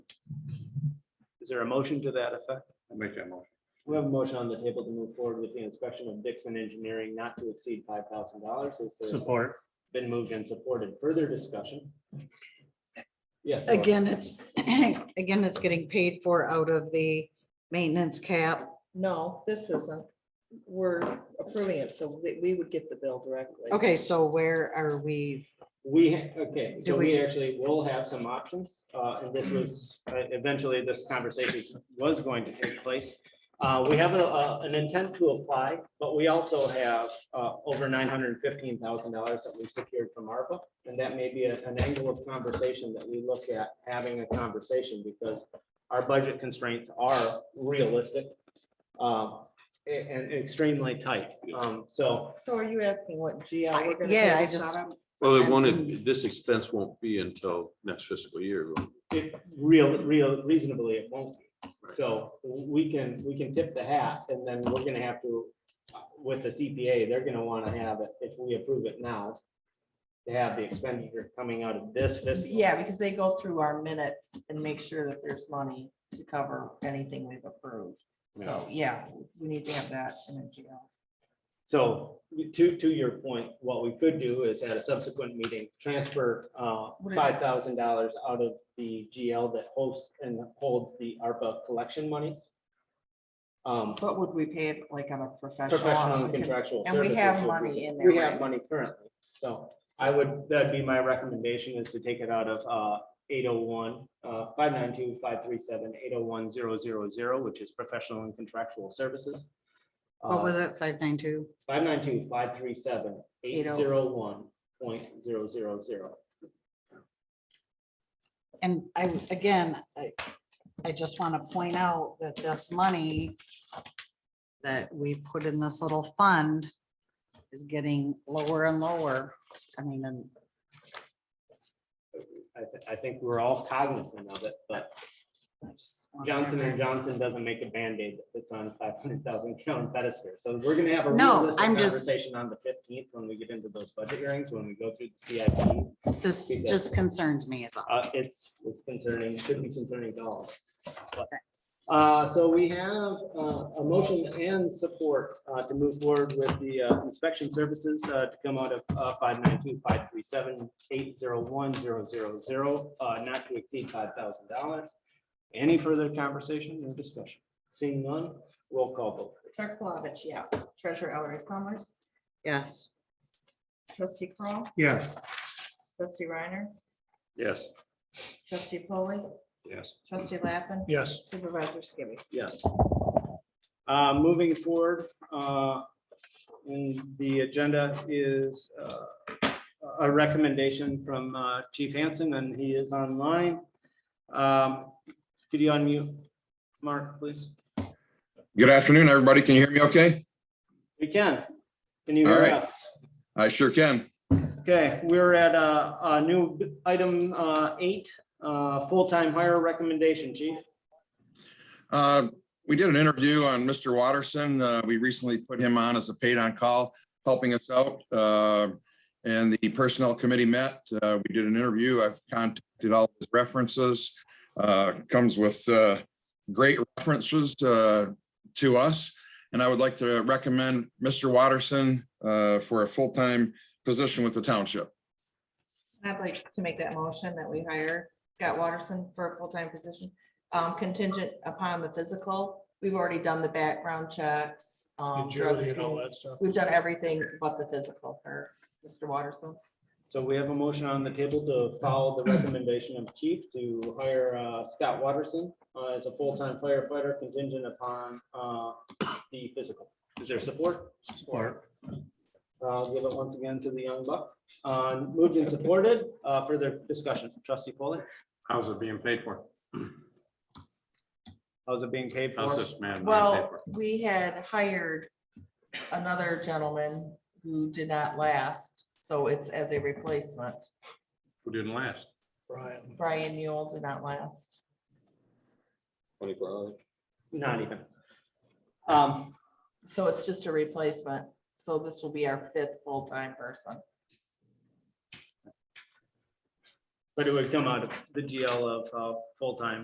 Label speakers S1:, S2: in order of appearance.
S1: Is there a motion to that effect?
S2: I make that motion.
S3: We have a motion on the table to move forward with the inspection of Dixon Engineering not to exceed five thousand dollars. It's
S1: Support.
S3: been moved and supported. Further discussion? Yes. Laura.
S4: Again, it's, again, it's getting paid for out of the maintenance cap.
S5: No, this isn't. We're approving it, so we, we would get the bill directly.
S4: Okay, so where are we?
S3: We, ha- okay, so
S4: Do
S3: we
S4: we-
S3: actually will have some options, uh, and this was, uh, eventually this conversation was going to take place. Uh, we have a, a- an intent to apply, but we also have, uh, over nine hundred and fifteen thousand dollars that we've secured from ARPA. And that may be a- an angle of conversation that we look at having a conversation because our budget constraints are realistic. Um, a- and extremely tight. Um, so
S5: So are you asking what GL? we're gonna
S4: Yeah,
S5: pay
S4: I
S5: this
S4: just,
S5: out of?
S2: Well, it won't, this expense won't be until next fiscal year. will it?
S3: it real, real reasonably, it won't. be.
S2: Right.
S3: So we can, we can tip the hat and then we're gonna have to, uh, with the CPA, they're gonna wanna have it, if we approve it now. To have the expenditure coming out of this fiscal.
S5: Yeah, because they go through our minutes and make sure that there's money to cover anything we've approved. So, yeah, we need to have that in a GL.
S3: So to, to your point, what we could do is at a subsequent meeting, transfer uh,
S5: What is-
S3: five thousand dollars out of the GL that hosts and holds the ARPA collection monies. Um,
S5: But would we pay it like on a professional?
S3: professional and contractual
S5: And
S3: services.
S5: we have
S3: so
S5: money in there.
S3: We have
S5: right?
S3: money currently, so I would, that'd be my recommendation is to take it out of eight oh one, five nine two, five three seven, eight oh one, zero zero zero, which is professional and contractual services. Uh,
S4: what was it, five nine two?
S3: Five nine two, five three seven, eight zero one point zero zero zero.
S4: And I, again, I, I just want to point out that this money that we put in this little fund is getting lower and lower. I mean, and
S3: I, th- I think we're all cognizant of it, but
S4: I just. want
S3: Johnson and
S4: everyone-
S3: Johnson doesn't make a Band-Aid that fits on five hundred thousand gallon pedestal. So we're gonna have a
S4: No,
S3: realistic
S4: I'm just-
S3: conversation on the fifteenth when we get into those budget hearings, when we go through the CIP.
S4: This just concerns me as all.
S3: Uh, it's, it's concerning, should be concerning to all. of us. But, Uh, so we have, uh, a motion and support, uh, to move forward with the uh, inspection services, uh, to come out of, uh, five nine two, five three seven, eight zero one, zero zero zero, uh, not to exceed five thousand dollars. Any further conversation or discussion? Seeing none, roll call vote. please.
S5: Clerk Plavich, yes. Treasurer Ellery Summers,
S4: Yes.
S5: trustee Kroll,
S1: Yes.
S5: trustee Reiner,
S2: Yes.
S5: trustee Polly,
S2: Yes.
S5: trustee Lappin,
S1: Yes.
S5: supervisor Skibby.
S3: Yes. Uh, moving forward, uh, in the agenda is, uh, a recommendation from, uh, Chief Hansen, and he is online. Um, could you unmute, Mark, please?
S6: Good afternoon, everybody. Can you hear me okay?
S3: We can. Can you
S6: All
S3: hear
S6: right.
S3: us?
S6: I sure can.
S3: Okay, we're at, uh, a new b- item, uh, eight, uh, full-time hire recommendation, Chief.
S6: Uh, We did an interview on Mr. Watterson. Uh, We recently put him on as a paid-on-call, helping us out. Uh, And the Personnel Committee met. Uh, We did an interview. I've contacted all his references. Uh, Comes with uh, great references uh, to us. And I would like to recommend Mr. Watterson uh, for a full-time position with the township.
S5: I'd like to make that motion that we hire Scott Watterson for a full-time position, um, contingent upon the physical. We've already done the background checks. um, drug
S7: Jury and all
S5: screen.
S7: that stuff.
S5: We've done everything but the physical for Mr. Watterson.
S3: So we have a motion on the table to follow the recommendation of chief to hire uh, Scott Watterson uh, as a full-time firefighter contingent upon uh, the physical. Is there support?
S1: Support.
S3: Uh, I'll Give it once again to the young buck. Uh, Moved and supported. Uh, Further discussion. Trustee Foley,
S2: How's it being paid for?
S3: how's it being paid for?
S2: How's this man? being paid for?
S5: Well, we had hired another gentleman who did not last, so it's as a replacement.
S2: Who didn't last?
S7: Brian,
S5: Brian Mule did not last.
S2: Twenty-four hours.
S3: Not even. Um,
S5: So it's just a replacement. So this will be our fifth full-time person.
S3: But it would come out of the GL of uh, full-time